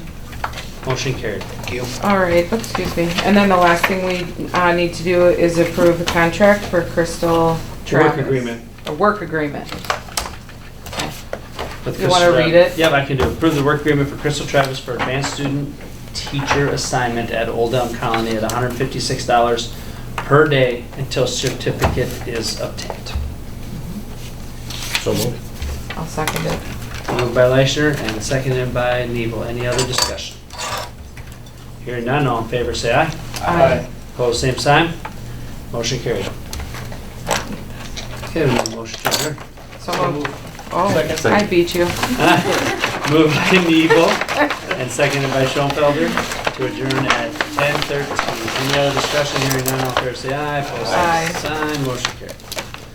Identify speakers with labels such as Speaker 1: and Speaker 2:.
Speaker 1: Motion carried. Thank you.
Speaker 2: All right, excuse me. And then the last thing we uh, need to do is approve a contract for Crystal Travis.
Speaker 1: Work agreement.
Speaker 2: A work agreement.
Speaker 1: with
Speaker 2: You wanna
Speaker 1: Crystal-
Speaker 2: read it?
Speaker 1: Yep, I can do it. Approve the work agreement for Crystal Travis for advanced student teacher assignment at Old Elm Colony at $156 per day until certificate is obtained.
Speaker 3: So moved.
Speaker 2: I'll second it.
Speaker 1: Moved by Leishner and seconded by Neville. Any other discussion? Hearing none, all in favor, say aye.
Speaker 2: Aye.
Speaker 1: Opposed, same sign. Motion carried. Okay, we need a motion to adjourn.
Speaker 2: So moved. Oh, I beat you.
Speaker 1: Moved by Neville and seconded by Schoenfelder to adjourn at 10:13. Any other discussion? Hearing none, all fair say aye. Opposed, same
Speaker 2: Aye.
Speaker 1: sign. Motion carried.